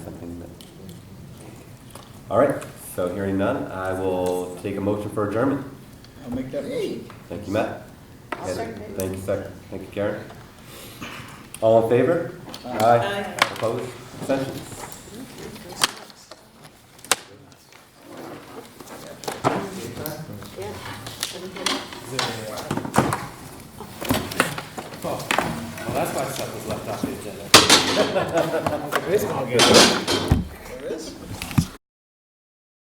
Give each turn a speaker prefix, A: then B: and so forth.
A: All right, so hearing none, I will take a motion for adjournment.
B: I'll make that motion.
A: Thank you, Matt.
C: I'll second it.
A: Thank you, second. Thank you, Karen. All in favor? Aye. Opposed? Abstentions?
C: Yeah.
D: Well, that's why stuff was left off the agenda.
B: There is?